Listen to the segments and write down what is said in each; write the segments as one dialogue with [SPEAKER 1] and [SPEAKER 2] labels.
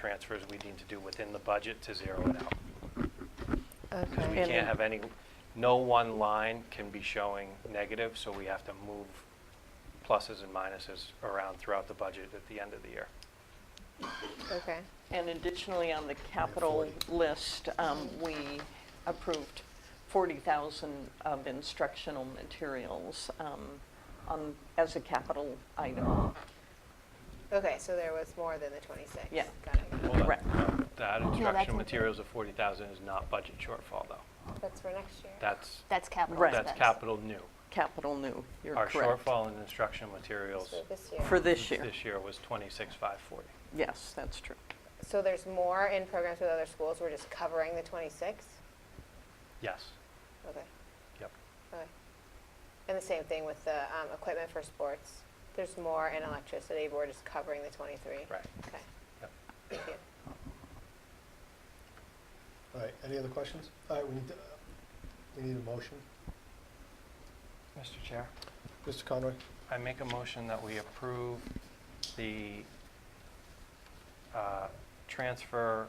[SPEAKER 1] transfers we need to do within the budget to zero it out. Because we
[SPEAKER 2] Okay.
[SPEAKER 1] can't have any, no one line can be showing negative, so we have to move pluses and minuses around throughout the budget at the end of the year.
[SPEAKER 2] Okay.
[SPEAKER 3] And additionally, on the capital list, um, we approved 40,000 of instructional materials um, on, as a capital item.
[SPEAKER 2] Okay, so there was more than the 26.
[SPEAKER 3] Yeah.
[SPEAKER 2] Got it, got it.
[SPEAKER 1] Hold on.
[SPEAKER 3] Right.
[SPEAKER 1] That
[SPEAKER 4] that's
[SPEAKER 1] instructional
[SPEAKER 4] in-
[SPEAKER 1] uh, materials of 40,000 is not budget shortfall, though.
[SPEAKER 2] That's for next year.
[SPEAKER 1] That's,
[SPEAKER 4] That's capital
[SPEAKER 3] Right.
[SPEAKER 1] that's
[SPEAKER 4] expense.
[SPEAKER 1] capital new.
[SPEAKER 3] Capital new, you're
[SPEAKER 1] Our
[SPEAKER 3] correct.
[SPEAKER 1] shortfall in instructional materials
[SPEAKER 2] So this year.
[SPEAKER 3] For this year,
[SPEAKER 1] this year was 26,540.
[SPEAKER 3] yes, that's true.
[SPEAKER 2] So there's more in programs with other schools, we're just covering the 26?
[SPEAKER 1] Yes,
[SPEAKER 2] Okay,
[SPEAKER 1] yep.
[SPEAKER 2] okay. And the same thing with the um, equipment for sports, there's more in electricity, but we're just covering the 23?
[SPEAKER 1] Right.
[SPEAKER 2] Okay,
[SPEAKER 1] Yep.
[SPEAKER 2] thank you.
[SPEAKER 5] All right, any other questions? All right, we need, to- we need a motion.
[SPEAKER 1] Mr. Chair?
[SPEAKER 5] Mr. Conroy?
[SPEAKER 1] I make a motion that we approve the uh, transfer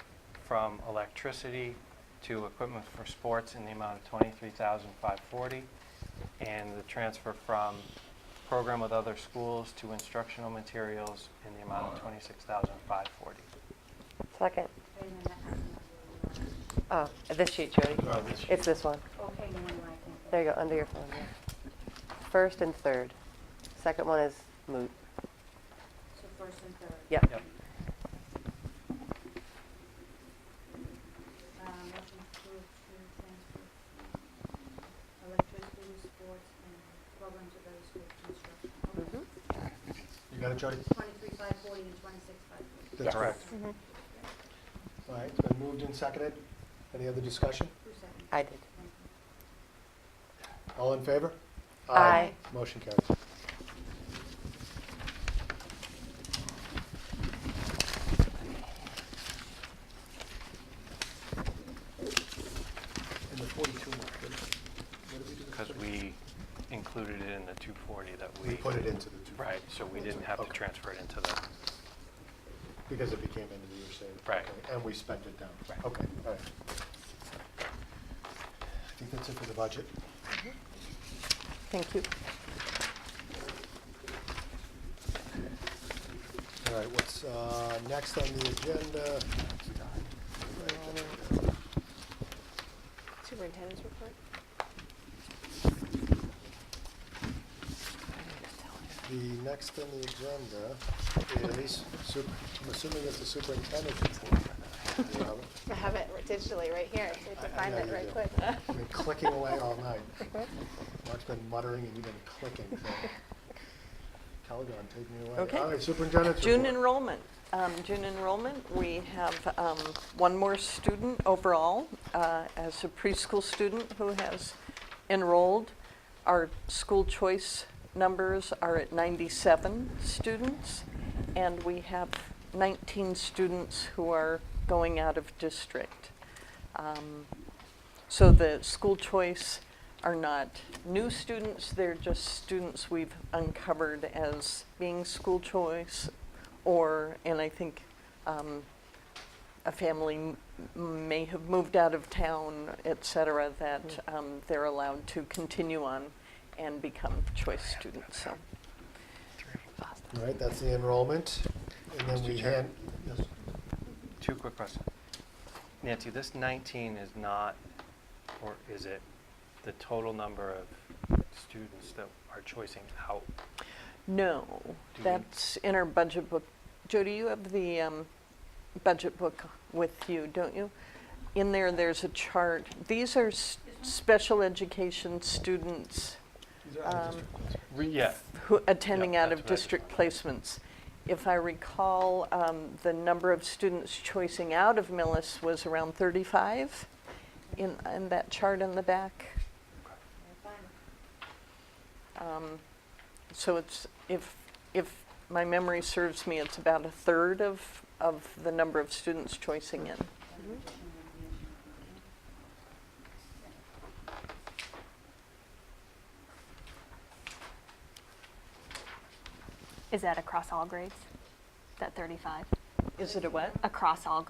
[SPEAKER 1] from electricity to equipment for sports in the amount of $23,540, and the transfer from program with other schools to instructional materials in the amount of $26,540.
[SPEAKER 6] Second.
[SPEAKER 7] Wait a minute, I have another
[SPEAKER 6] Oh, this sheet, Jody.
[SPEAKER 5] No, this
[SPEAKER 6] It's this one.
[SPEAKER 7] one. Okay, no, I think.
[SPEAKER 6] There you go, under your phone. yeah. First and third. Second one is moot.
[SPEAKER 7] So first and third.
[SPEAKER 6] Yep.
[SPEAKER 1] Yep.
[SPEAKER 7] Um, motion to approve to transfer electricity, sports, and programs of those with construction.
[SPEAKER 6] Mhm.
[SPEAKER 5] You got it, Jody?
[SPEAKER 7] Twenty-three five forty and twenty-six five forty.
[SPEAKER 5] That's
[SPEAKER 1] Correct.
[SPEAKER 6] Mm-hmm.
[SPEAKER 5] All right, it's been moved and seconded. Any other discussion?
[SPEAKER 7] Who seconded?
[SPEAKER 6] I did.
[SPEAKER 7] Thank you.
[SPEAKER 5] All in favor?
[SPEAKER 6] Aye.
[SPEAKER 5] Motion carries. And the 42 mark, what what did we do? with
[SPEAKER 1] Because
[SPEAKER 5] 42?
[SPEAKER 1] we included it in the 240 that we...
[SPEAKER 5] We put it into the two.
[SPEAKER 1] Right, so we didn't have to
[SPEAKER 5] Okay.
[SPEAKER 1] transfer it into the...
[SPEAKER 5] Because it became into the year savings.
[SPEAKER 1] Right.
[SPEAKER 5] Okay, And we spent it down.
[SPEAKER 1] Right.
[SPEAKER 5] Okay, all right. I think that's it for the budget.
[SPEAKER 3] Thank you.
[SPEAKER 5] All right, what's uh, next on the agenda?
[SPEAKER 2] Superintendent's report?
[SPEAKER 5] The next on the agenda is, sup- I'm assuming it's the superintendent report. You have it?
[SPEAKER 2] I have it digitally right here, I have to
[SPEAKER 5] I- I
[SPEAKER 2] find
[SPEAKER 5] know
[SPEAKER 2] it
[SPEAKER 5] you
[SPEAKER 2] right
[SPEAKER 5] do.
[SPEAKER 2] quick.
[SPEAKER 5] I've been clicking away all night. Mark's been muttering and you've been clicking. so. Calgon, take me away.
[SPEAKER 3] Okay.
[SPEAKER 5] All right, superintendent's report.
[SPEAKER 3] June enrollment, um, June enrollment, we have, um, one more student overall, uh, as a preschool student who has enrolled. Our school choice numbers are at ninety-seven students, and we have nineteen students who are going out of district. Um, so the school choice are not new students, they're just students we've uncovered as being school choice or, and I think um, a family m- may have moved out of town, et cetera, that um, they're allowed to continue on and become choice students, so.
[SPEAKER 5] All right, that's the enrollment. And then
[SPEAKER 1] Mr.
[SPEAKER 5] we
[SPEAKER 1] Chair.
[SPEAKER 5] hand, yes,
[SPEAKER 1] Two quick questions. Nancy, this 19 is not, or is it the total number of students that are choicing out?
[SPEAKER 3] No,
[SPEAKER 1] we-
[SPEAKER 3] that's in our budget book. Jody, you have the um, budget book with you, don't you? In there, there's a chart. These are s- special education students
[SPEAKER 5] these are out of
[SPEAKER 3] Um,
[SPEAKER 5] district. yes.
[SPEAKER 1] Re- Yeah,
[SPEAKER 3] who, attending
[SPEAKER 1] Yep,
[SPEAKER 3] out of
[SPEAKER 1] that's what I
[SPEAKER 3] district placements. If I recall, um, the number of students choicing out of Millis was around 35 in, in that chart in the back. Um, So it's, if, if my memory serves me, it's about a third of, of the number of students choicing in.
[SPEAKER 4] Is that across all grades? That 35?
[SPEAKER 3] Is it a what?
[SPEAKER 4] across all grades.